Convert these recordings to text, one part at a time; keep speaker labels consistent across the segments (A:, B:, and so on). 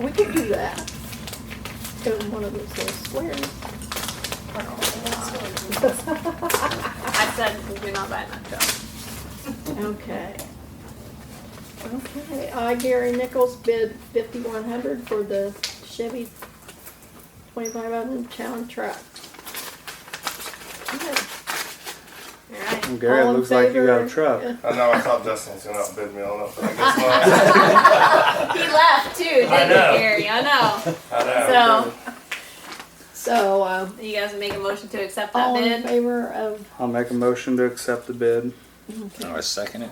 A: We could do that. Go in one of those little squares.
B: I said, we're not buying that truck.
A: Okay. Okay, I, Gary Nichols, bid fifty-one hundred for the Chevy twenty-five hundred pound truck. Okay.
B: All right.
C: Well, Gary,
A: All
C: it
A: in
C: looks like you got
A: favor?
C: a truck.
D: I know, I thought Dustin was gonna outbid me on it, but I guess
B: He left too, didn't
D: I
B: he,
D: know.
B: Gary? I know.
D: not. I know.
B: So,
A: So, uh,
B: you guys make a motion to accept that
A: all in
B: bid?
A: favor of,
C: I'll make a motion to accept the bid.
E: And I second it.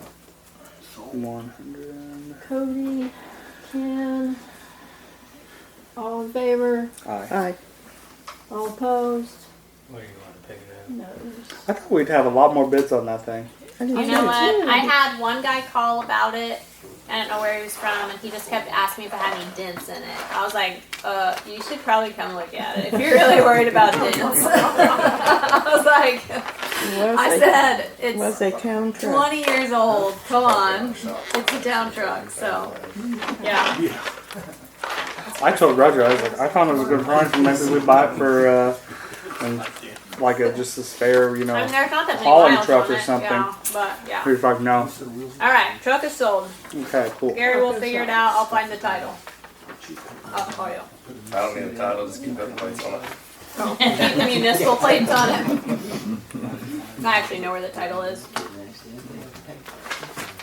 C: One hundred.
A: Cody, Ken. All in favor,
C: Aye.
F: Aye.
A: all opposed,
G: Where you want to pick it up?
A: no's.
C: I thought we'd have a lot more bids on that thing.
F: I
B: You
F: didn't
B: know
F: see
B: what?
A: too.
B: I had one guy call about it. I don't know where he was from, and he just kept asking me if it had any dents in it. I was like, uh, you should probably come look at it if you're really worried about dents. I was like,
F: it. It was
B: I
F: a-
B: said,
F: it Was
B: it's
F: a town truck.
B: 20 years old. Come on.
D: So,
B: It's a down truck, so, yeah.
C: I told Roger, I was like, I thought it was a good price, and maybe we buy it for, uh, and like a, just a spare, you
B: I
C: know.
B: mean, there's not that many
C: Hauling
B: miles
C: truck
B: on
C: or
B: it,
C: something.
B: yeah, but, yeah.
C: We was like, no.
B: All right, truck is sold.
C: Okay, cool.
B: Gary will figure it out. I'll find the title. Uh, oh, I'll call you.
D: I don't need a title, just keep that place on it.
B: Keep the Oh. municipal plates on it. I actually know where the title is.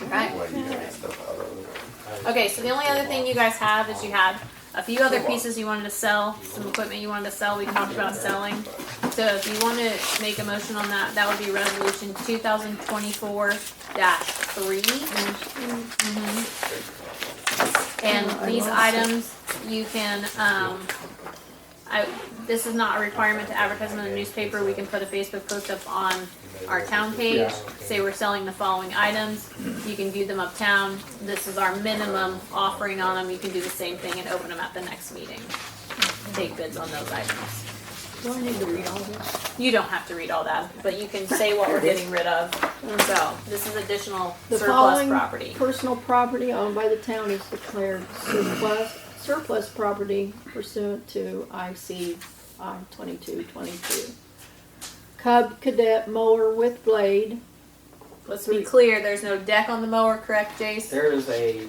B: Right.
D: Like, you gotta get stuff out of it.
B: Okay, so the only other thing you guys have is you had a few other pieces you wanted to sell, some equipment you wanted to sell. We talked about selling. So if you want to make a motion on that, that would be resolution 2024 3. Mm-hmm. And these items, you can, um, I, this is not a requirement to advertise them in the newspaper, we can put a Facebook post up on our town page, say we're selling the following items, you can view them uptown, this is our minimum offering on them, you can do the same thing and open them at the next meeting. Take bids on those items.
A: Do I need to read all this?
B: You don't have to read all that, but you can say what we're getting rid of, so, this is additional
A: The
B: surplus
A: following
B: property.
A: personal property owned by the town is declared surplus, surplus property pursuant to IC I twenty-two twenty-two. Cub cadet mower with blade,
B: Let's be clear, there's no deck on the mower, correct, Jace?
G: There is a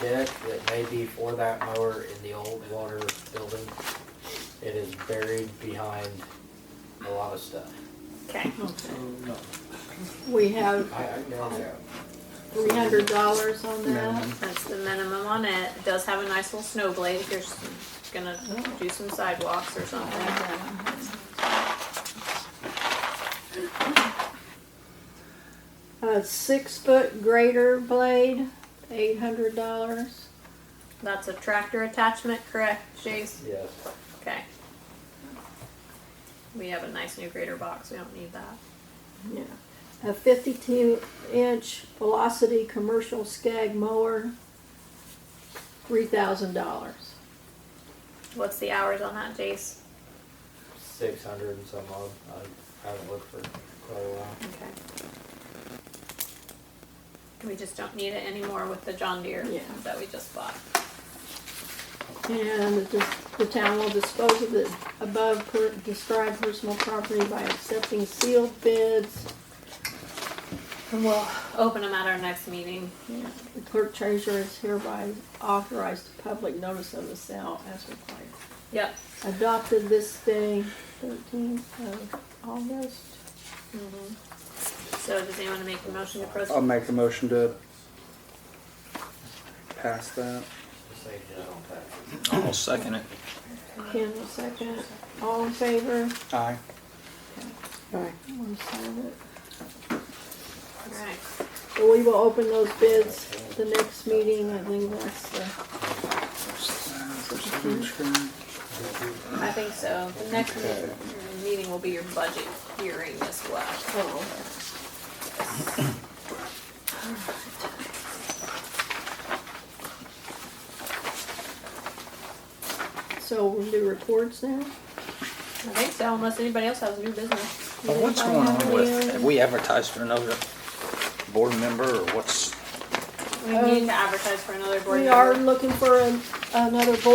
G: deck that may be for that mower in the old water building. It is buried behind a lot of stuff.
B: Okay.
A: we have
G: I, I know that.
A: three hundred dollars on that.
B: That's the minimum on it. It does have a nice little snow blade if you're s- gonna do some sidewalks or something.
A: A six-foot grater blade, eight hundred dollars.
B: That's a tractor attachment, correct, Chase?
G: Yes.
B: Okay. We have a nice new grater box. We don't need that.
A: Yeah. A fifty-two inch velocity commercial skag mower, three thousand dollars.
B: What's the hours on that, Jace?
G: Six hundred and some odd. I haven't looked for quite a while.
B: Okay. We just don't need it anymore with the John Deere
A: Yeah.
B: that we just bought.
A: And the dis- the town will dispose of the above per- described personal property by accepting sealed bids.
B: And we'll open them at our next meeting.
A: Yeah, The clerk treasurer is hereby authorized to public notice of the sale as required.
B: Yep.
A: Adopted this day, thirteenth of August.
B: So does anyone make a motion to
C: I'll
B: proceed?
C: make a motion to pass that.
G: Just say no on that.
E: I'll second it.
A: Ken will second. All in favor?
C: Aye.
F: Aye.
A: One silent.
B: All right.
A: So we will open those bids the next meeting. I think that's the,
B: I think so. The next me- meeting will be your budget hearing as well.
A: oh. So we'll do reports now?
B: I think so, unless anybody else has new business.
E: Well, what's going on with, have we advertised for another board member or what's?
B: We need to advertise for another board
A: We
B: meeting.
A: are looking for an- another board